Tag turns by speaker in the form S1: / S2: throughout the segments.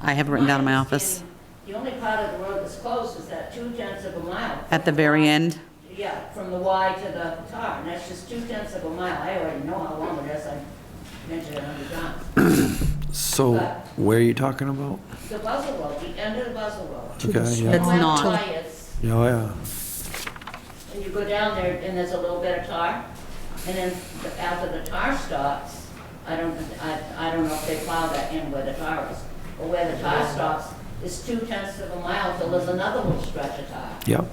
S1: I have it written down in my office,
S2: The only part of the road that's closed is that two tenths of a mile.
S1: at the very end.
S2: Yeah, from the Y to the tar, and that's just two tenths of a mile. I already know how long it is, I mentioned it a hundred times.
S3: So where are you talking about?
S2: The Buzzell Road, the end of the Buzzell Road.
S3: Okay,
S1: That's
S3: yeah,
S2: Where the
S1: not-
S2: Y is,
S3: yeah, Oh, yeah.
S2: and you go down there and there's a little bit of tar, and then the- after the tar stops, I don't, I, I don't know if they plow that in where the tar is, but where the tar stops, is two tenths of a mile till there's another little stretch of tar.
S3: Yep.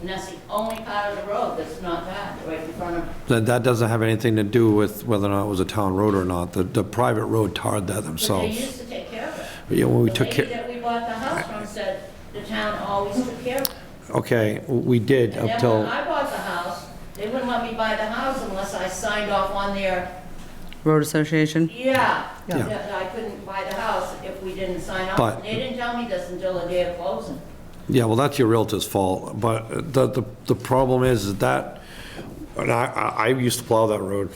S2: And that's the only part of the road that's not that, right in front of,
S3: That, that doesn't have anything to do with whether or not it was a town road or not. The, the private road tarred that
S2: but they
S3: themselves.
S2: used to take care of it.
S3: Yeah, when we took
S2: The
S3: care,
S2: lady that we bought the house from said the town always took care of it.
S3: okay, we did
S2: And
S3: up
S2: then when
S3: till,
S2: I bought the house, they wouldn't let me buy the house unless I signed off on their,
S1: Road Association?
S2: yeah,
S3: Yeah.
S2: that that I couldn't buy the house if we didn't sign off.
S3: But-
S2: And They didn't tell me this until the day of closing.
S3: yeah, well, that's your realtor's fault. But the, the, the problem is is that, and I, I, I used to plow that road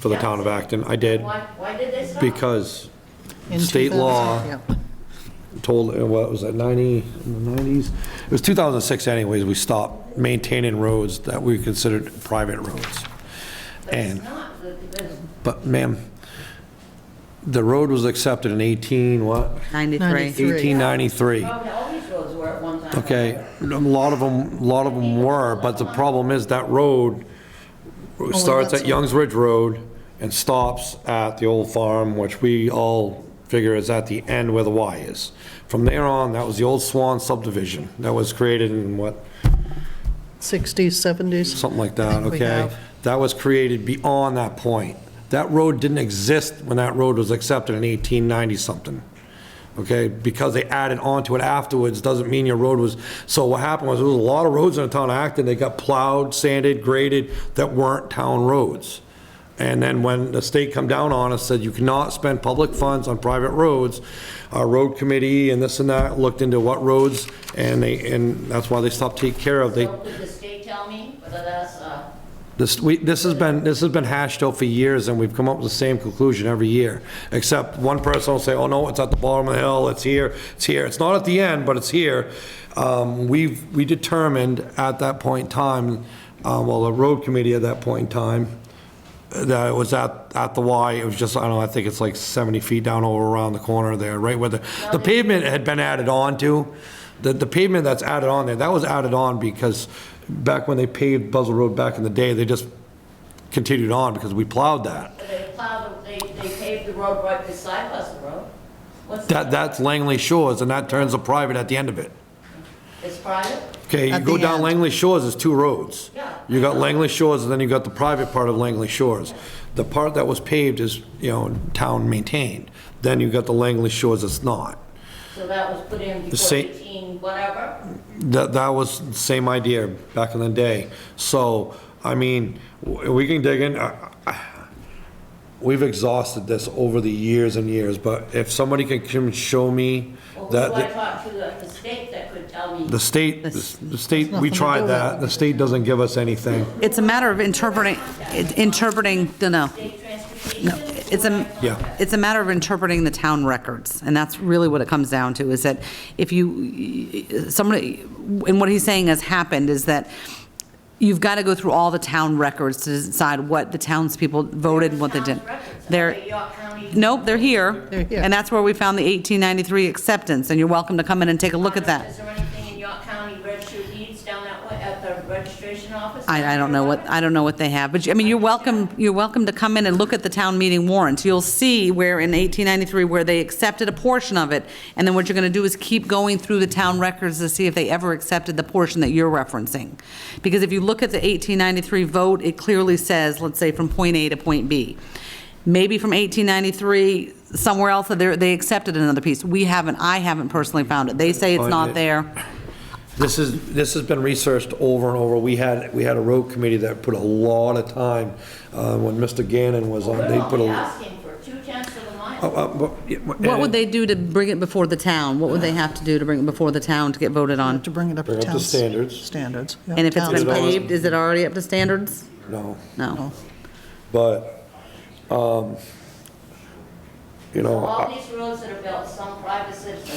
S3: for the town of Acton. I did.
S2: Why, why did they stop?
S3: Because
S4: In
S3: state law
S4: 2000, yeah.
S3: told, uh, what was that, 90, in the 90s? It was 2006 anyways, we stopped maintaining roads that we considered private roads.
S2: But
S3: And
S2: it's not, The- the-
S3: But ma'am, the road was accepted in 18, what?
S1: 93.
S4: Ninety-three.
S3: 1893.
S2: probably all these roads were at one time.
S3: Okay, a lot of them, a lot of them were, but the problem is that road starts
S4: that's-
S3: at Youngs Ridge Road and stops at the old farm, which we all figure is at the end where the Y is. From there on, that was the old Swan subdivision that was created in what,
S4: 60s, 70s.
S3: something like
S4: I
S3: that,
S4: think we
S3: okay?
S4: have.
S3: That was created beyond that point. That road didn't exist when that road was accepted in 1890-something, okay? Because they added on to it afterwards, doesn't mean your road was, so what happened was, there was a lot of roads in the town of Acton, they got plowed, sanded, graded, that weren't town roads. And then when the state come down on us, said you cannot spend public funds on private roads, our road committee and this and that looked into what roads, and they, and that's why they stopped taking care of, they,
S2: So Did the state tell me whether that's, uh,
S3: this, we, this has been, this has been hashed out for years, and we've come up with the same conclusion every year, except one person will say, oh, no, it's at the bottom of the hill, it's here, it's here, it's not at the end, but it's here. Um, we've, we determined at that point in time, uh, well, the road committee at that point in time, that it was at, at the Y, it was just, I don't know, I think it's like 70 feet down over around the corner there, right where the, the pavement had been added on to. The, the pavement that's added on there, that was added on because back when they paved Buzzell Road back in the day, they just continued on because we plowed that.
S2: they plowed, they, they paved the road right beside Buzzell Road? What's
S3: That, that's Langley Shores, and that turns a private at the end of it.
S2: It's private?
S3: Okay, you
S4: At
S3: go
S4: the
S3: down
S4: end.
S3: Langley Shores, there's two roads.
S2: Yeah.
S3: You got Langley Shores, and then you got the private part of Langley Shores. The part that was paved is, you know, town maintained. Then you got the Langley Shores that's not.
S2: So that was put in before
S3: same-
S2: 18, whatever?
S3: That, that was the same idea back in the day. So, I mean, w- we can dig in, I- I- we've exhausted this over the years and years, but if somebody can come and show me
S2: Well, who do I
S3: that,
S2: talk to at the state that could tell me?
S3: the state, the state, we tried that, the state doesn't give us anything.
S1: It's a matter of interpreting, interpreting, no, no.
S2: State
S1: No,
S2: transportation?
S1: it's a,
S3: Yeah.
S1: it's a matter of interpreting the town records, and that's really what it comes down to, is that if you, somebody, and what he's saying has happened is that you've got to go through all the town records to decide what the townspeople voted and what they didn't.
S2: Town's records,
S1: They're,
S2: okay, York County-
S1: nope, they're here.
S4: They're here.
S1: And that's where we found the 1893 acceptance, and you're welcome to come in and take a look at
S2: Is
S1: that.
S2: there anything in York County register of deeds down that way at the registration office?
S1: I, I don't know what, I don't know what they have, but, you- I mean, you're welcome, you're welcome to come in and look at the town meeting warrants. You'll see where in 1893, where they accepted a portion of it, and then what you're going to do is keep going through the town records to see if they ever accepted the portion that you're referencing. Because if you look at the 1893 vote, it clearly says, let's say, from point A to point B. Maybe from 1893, somewhere else, they, they accepted another piece. We haven't, I haven't personally found it. They say it's
S3: Find
S1: not
S3: it.
S1: there.
S3: This is, this has been researched over and over. We had, we had a road committee that put a lot of time, uh, when Mr. Gannon was on,
S2: We're
S3: they put
S2: only
S3: a.
S2: asking for two tenths of a
S3: uh,
S2: mile.
S3: uh, but-
S1: What would they do to bring it before the town? What would they have to do to bring it before the town to get voted on?
S4: To bring it up to
S3: Bring up to
S4: town s-
S3: standards.
S4: Standards. yeah,
S1: And if it's
S4: town
S1: been
S3: Is it always-
S1: paved, is it already up to standards?
S3: No.
S1: No.
S3: But, um, you know. I- uh,
S2: All these roads that are built, some private citizens